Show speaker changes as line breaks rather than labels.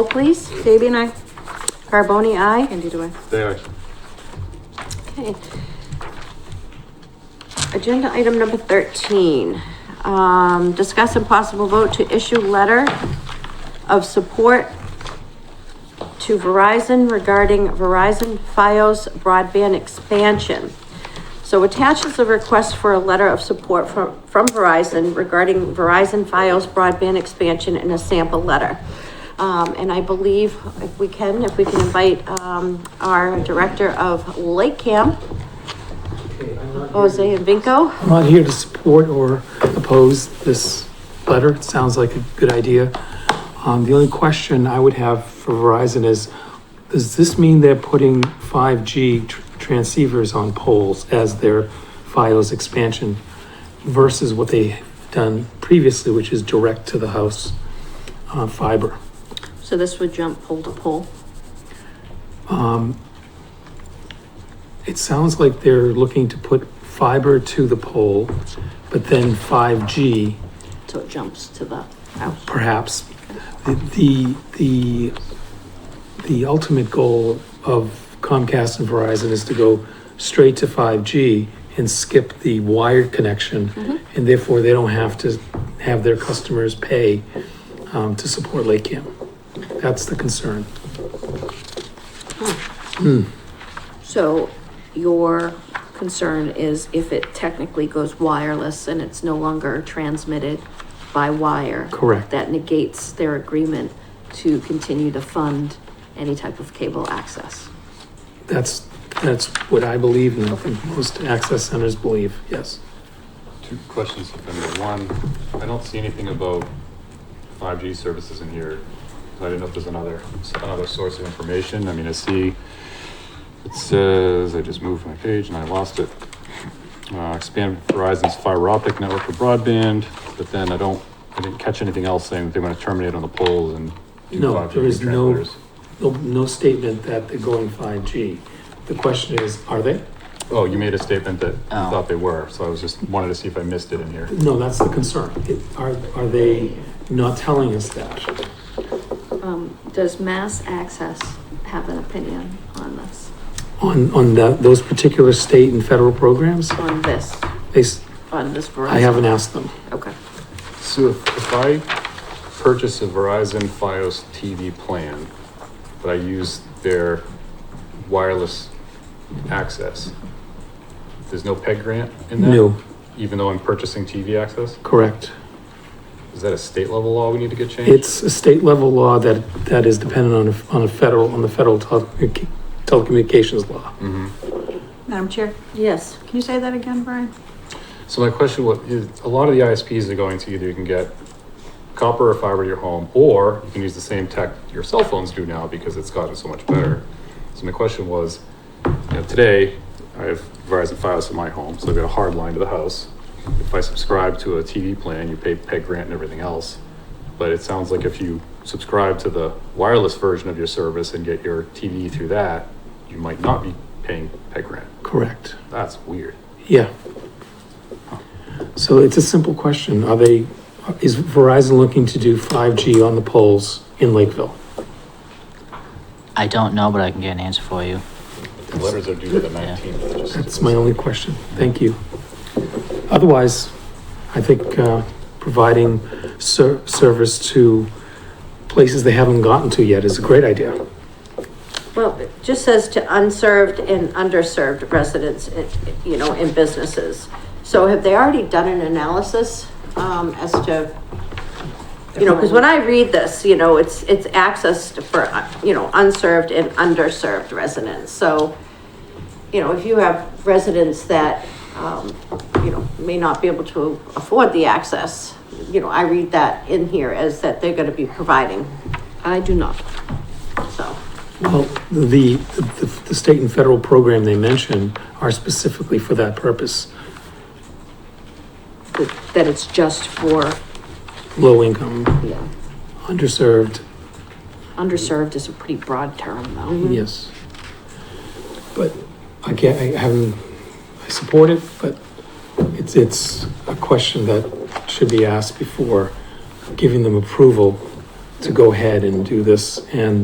Roll, Oh, Please,
Fabian, I,
Carboni, aye.
Andy, do I?
Day aye.
Okay. Agenda item number thirteen, um, discuss and possible vote to issue letter of support to Verizon regarding Verizon FiOS broadband expansion. So attached is a request for a letter of support from, from Verizon regarding Verizon FiOS broadband expansion and a sample letter. Um, and I believe if we can, if we can invite, um, our Director of Lake Camp, Jose Vinco.
I'm not here to support or oppose this letter. It sounds like a good idea. Um, the only question I would have for Verizon is, does this mean they're putting 5G tr- transceivers on poles as their FiOS expansion versus what they've done previously, which is direct to the house uh, fiber?
So this would jump pole to pole.
It sounds like they're looking to put fiber to the pole, but then 5G
So it jumps to the house.
perhaps the the the, the ultimate goal of Comcast and Verizon is to go straight to 5G and skip the wired connection, and therefore they don't have to have their customers pay um, to support Lake Camp. That's the concern.
So your concern is if it technically goes wireless and it's no longer transmitted by wire?
Correct.
That negates their agreement to continue to fund any type of cable access?
That's that's what I believe, and I think most access centers believe. Yes.
Two questions, if any. One, I don't see anything about 5G services in here. So I didn't know if there's another, another source of information. I mean, I see, it says, I just moved my page and I lost it. Uh, expand Verizon's fiber optic network for broadband, but then I don't, I didn't catch anything else saying that they want to terminate on the poles and do
No,
5G
there is no-
transmitters.
No, no statement that they're going 5G. The question is, are they?
Oh, you made a statement that you
Oh.
thought they were, so I was just, wanted to see if I missed it in here.
No, that's the concern. It- Are, are they not telling us that?
Um, does Mass Access have an opinion on this,
On, on the, those particular state and federal programs?
on this,
They, s-
on this Verizon?
I haven't asked them.
Okay.
So if, if I purchase a Verizon FiOS TV plan, but I use their wireless access, there's no PEG grant in that?
No,
Even though I'm purchasing TV access?
correct.
Is that a state level law we need to get changed?
It's a state level law that, that is dependent on, a- on a federal, on the federal telecommunica- telecommunications law.
hmm
Madam Chair,
Yes.
can you say that again, Brian?
So my question was, is a lot of the ISPs are going to either you can get copper or fiber to your home, or you can use the same tech your cell phones do now because it's gotten so much better. So my question was, you know, today I have Verizon Fios in my home, so I've got a hard line to the house. If I subscribe to a TV plan, you pay peg rent and everything else. But it sounds like if you subscribe to the wireless version of your service and get your TV through that, you might not be paying peg rent.
Correct.
That's weird.
Yeah. So it's a simple question. Are they, is Verizon looking to do 5G on the poles in Lakeville?
I don't know, but I can get an answer for you.
The letters are due to the 19th. just-
That's my only question. Thank you. Otherwise, I think uh, providing ser- service to places they haven't gotten to yet is a great idea.
Well, it just says to unserved and underserved residents, eh, you know, in businesses. So have they already done an analysis, um, as to, you know, because when I read this, you know, it's, it's access to- for, uh, you know, unserved and underserved residents. So, you know, if you have residents that, um, you know, may not be able to afford the access, you know, I read that in here as that they're gonna be providing,
I do not.
so.
Well, the, the, the state and federal program they mention are specifically for that purpose,
That- That it's just for,
low income,
yeah,
underserved,
underserved is a pretty broad term though.
yes. But I can't, I haven't, I support it, but it's, it's a question that should be asked before giving them approval to go ahead and do this, and